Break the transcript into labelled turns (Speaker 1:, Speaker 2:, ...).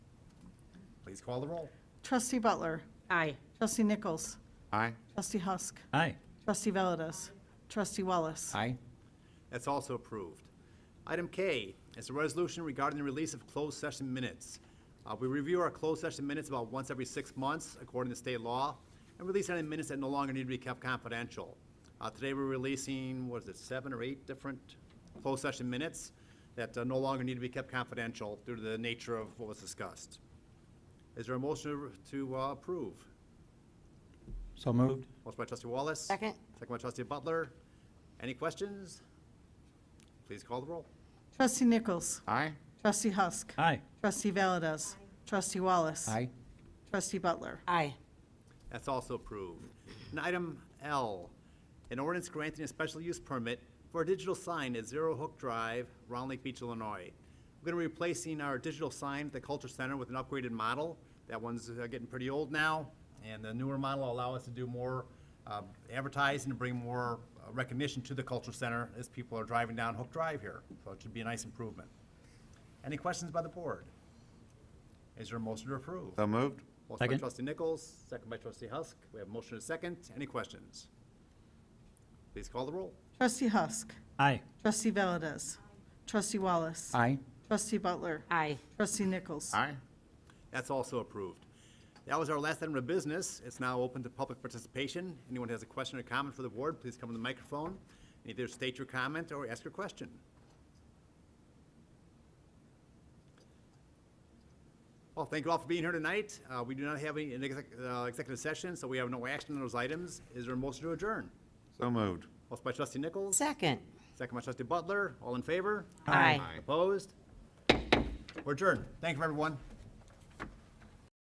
Speaker 1: Please call the roll.
Speaker 2: Trustee Butler.
Speaker 3: Aye.
Speaker 2: Trustee Nichols.
Speaker 4: Aye.
Speaker 2: Trustee Husk.
Speaker 5: Aye.
Speaker 2: Trustee Valdez. Trustee Wallace.
Speaker 5: Aye.
Speaker 1: That's also approved. Item K is a resolution regarding the release of closed session minutes. Uh, We review our closed session minutes about once every six months, according to state law, and release any minutes that no longer need to be kept confidential. Uh, Today, we're releasing, what is it, seven or eight different closed session minutes that uh, no longer need to be kept confidential due to the nature of what was discussed. Is there a motion to uh, approve?
Speaker 5: So moved.
Speaker 1: Motion by trustee Wallace.
Speaker 3: Second.
Speaker 1: Second by trustee Butler. Any questions? Please call the roll.
Speaker 2: Trustee Nichols.
Speaker 4: Aye.
Speaker 2: Trustee Husk.
Speaker 5: Aye.
Speaker 2: Trustee Valdez. Trustee Wallace. Trustee Butler.
Speaker 3: Aye.
Speaker 1: That's also approved. And item L, an ordinance granting a special use permit for a digital sign at Zero Hook Drive, Round Lake Beach, Illinois. We're gonna be replacing our digital sign at the Culture Center with an upgraded model. That one's uh, getting pretty old now, and the newer model will allow us to do more uh, advertising and bring more uh, recognition to the Culture Center as people are driving down Hook Drive here. So it should be a nice improvement. Any questions by the board? Is there a motion to approve?
Speaker 4: So moved.
Speaker 1: Motion by
Speaker 5: Second.
Speaker 1: trustee Nichols, second by trustee Husk. We have motion and second. Any questions? Please call the roll.
Speaker 2: Trustee Husk.
Speaker 5: Aye.
Speaker 2: Trustee Valdez. Trustee Wallace.
Speaker 5: Aye.
Speaker 2: Trustee Butler.
Speaker 3: Aye.
Speaker 2: Trustee Nichols.
Speaker 4: Aye.
Speaker 1: That's also approved. That was our last item of business. It's now open to public participation. Anyone has a question or comment for the board, please come to the microphone and either state your comment or ask your question. Well, thank you all for being here tonight. Uh, We do not have any exec- uh, executive session, so we have no action on those items. Is there a motion to adjourn?
Speaker 4: So moved.
Speaker 1: Motion by trustee Nichols.
Speaker 3: Second.
Speaker 1: Second by trustee Butler, all in favor?
Speaker 3: Aye.
Speaker 4: Aye.
Speaker 1: Opposed? We're adjourned. Thank you, everyone.